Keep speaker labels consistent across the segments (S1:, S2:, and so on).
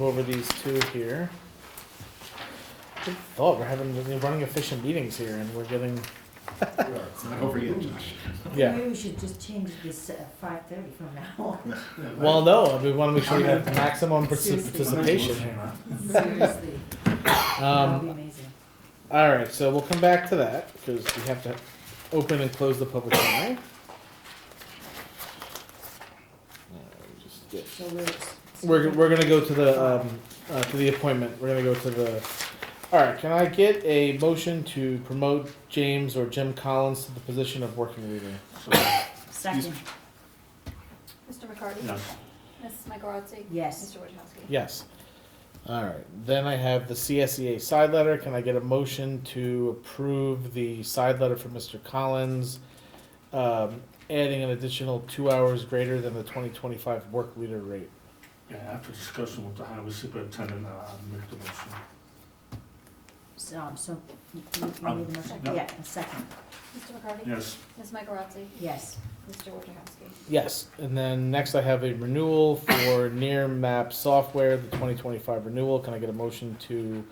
S1: go over these two here. Good thought, we're having, we're running efficient meetings here and we're getting,
S2: It's not over yet, Josh.
S1: yeah.
S3: Maybe we should just change this at five thirty from now on.
S1: Well, no, we wanna make sure we have maximum partic-
S3: Seriously.
S1: participation here.
S3: Seriously, that'd
S1: Um,
S3: be amazing.
S1: all right, so we'll come back to that, cause we have to open and close the public hearing. Uh, just get-
S3: So we're.
S1: We're, we're gonna go to the, um, uh, to the appointment, we're gonna go to the, alright, can I get a motion to promote James or Jim Collins to the position of working leader?
S3: Second,
S4: Mr. McCarty?
S2: No.
S4: Ms. Michaelotti?
S3: yes,
S4: Mr. Wojciechowski?
S1: Yes. Alright, then I have the CSEA side letter, can I get a motion to approve the side letter for Mr. Collins? Um, adding an additional two hours greater than the twenty twenty-five work leader rate.
S2: Yeah, after discussion with the highway superintendent, uh, I'll make the motion.
S3: so, um, so, you, you need a
S2: Um,
S3: motion,
S2: no.
S3: yeah, a second,
S4: Mr. McCarty?
S2: Yes,
S4: Ms. Michaelotti?
S3: yes,
S4: Mr. Wojciechowski?
S1: Yes, and then next I have a renewal for Near Map Software, the twenty twenty-five renewal. Can I get a motion to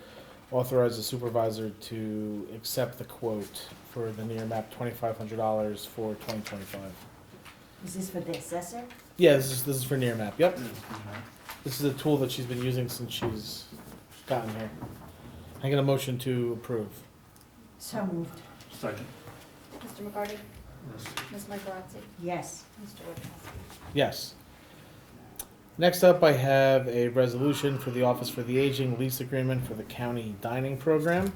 S1: authorize the supervisor to accept the quote for the Near Map twenty-five hundred dollars for twenty twenty-five?
S3: is this for the assessor?
S1: Yeah, this is, this is for Near Map, yep.
S2: yeah,
S1: This is a tool that she's been using since she's gotten here. Can I get a motion to approve.
S3: So moved,
S2: second,
S4: Mr. McCarty?
S2: yes,
S4: Ms. Michaelotti?
S3: yes,
S4: Mr. Wojciechowski?
S1: Yes. Next up, I have a resolution for the Office for the Aging lease agreement for the county dining program.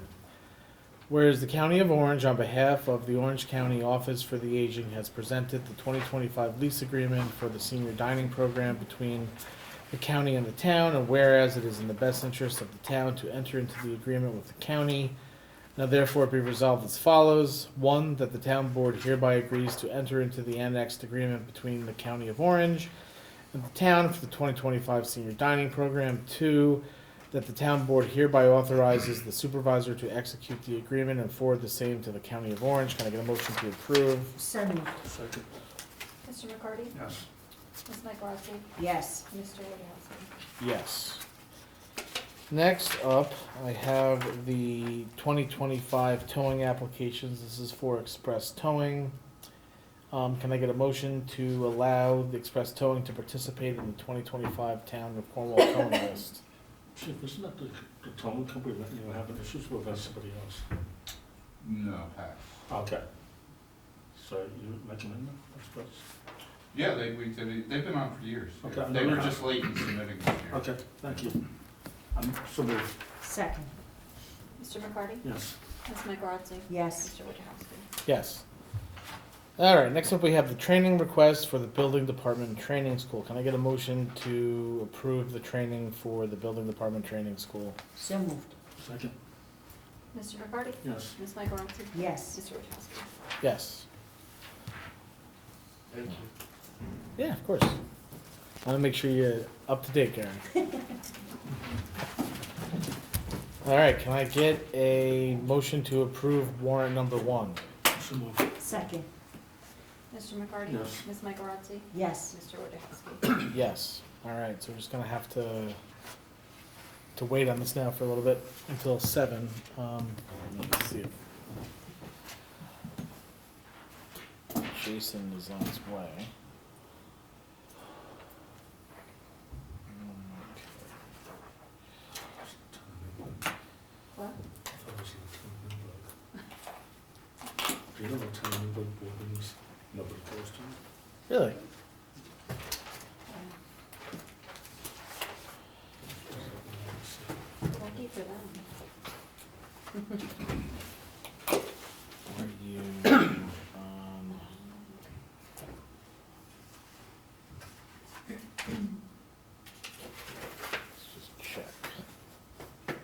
S1: Whereas the County of Orange, on behalf of the Orange County Office for the Aging, has presented the 2025 lease agreement for the senior dining program between the county and the town, and whereas it is in the best interest of the town to enter into the agreement with the county, now therefore be resolved as follows. One, that the town board hereby agrees to enter into the annexed agreement between the County of Orange and the town for the twenty twenty-five senior dining program. Two, that the town board hereby authorizes the supervisor to execute the agreement and forward the same to the County of Orange. Can I get a motion to approve?
S3: so moved,
S2: second,
S4: Mr. McCarty?
S2: yes,
S4: Ms. Michaelotti?
S3: yes,
S4: Mr. Wojciechowski?
S1: Yes. Next up, I have the twenty twenty-five towing applications. This is for express towing. Um, can I get a motion to allow the express towing to participate in the twenty twenty-five town of Cornwall towing list?
S2: Chief, isn't that the, the towing company that you were having issues with, that's somebody else?
S5: No, pass.
S2: Okay. So you recommend that, I suppose?
S5: Yeah, they, we, they- they've been on for years.
S2: Okay.
S5: They were just late in submitting this year.
S2: Okay, thank you. I'm, so moved,
S3: second,
S4: Mr. McCarty?
S2: yes,
S4: Ms. Michaelotti?
S3: yes,
S4: Mr. Wojciechowski?
S1: Yes. All right, next up we have the training request for the building department training school. Can I get a motion to approve the training for the building department training school?
S3: so moved,
S2: second,
S4: Mr. McCarty?
S2: yes,
S4: Ms. Michaelotti?
S3: yes,
S4: Mr. Wojciechowski?
S1: Yes.
S2: thank you.
S1: Yeah, of course. I want to make sure you're up to date, Karen. All right, can I get a motion to approve warrant number one?
S2: So moved,
S3: second,
S4: Mr. McCarty?
S2: Yes.
S4: Ms. Michaelotti?
S3: yes,
S4: Mr. Wojciechowski?
S1: Yes. All right, so we're just gonna have to to wait on this now for a little bit until seven. Um, let's see. if Jason is on his way. Mm, okay.
S4: What?
S2: I thought it was the town of Newburgh. Do you know the town of Newburgh board meetings, nobody goes to?
S1: Really?
S4: Lucky for them.
S1: Are you um, let's just check.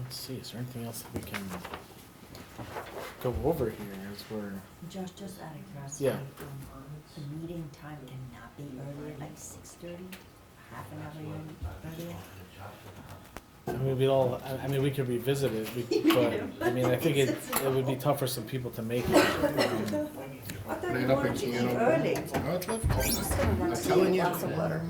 S1: Let's see, is there anything else that we can go over here as we're
S3: Josh, just out of curiosity.
S1: Yeah.
S3: um, The meeting time cannot be earlier, like six thirty, half an hour earlier?
S1: I mean, we all, I, I mean, we could revisit it, we, but, I mean, I think it, it would be tough for some people to make it. um,
S3: I thought
S5: Clean up and clean up.
S3: early.
S4: I'm just gonna run.
S5: telling you.
S4: Lots of letter.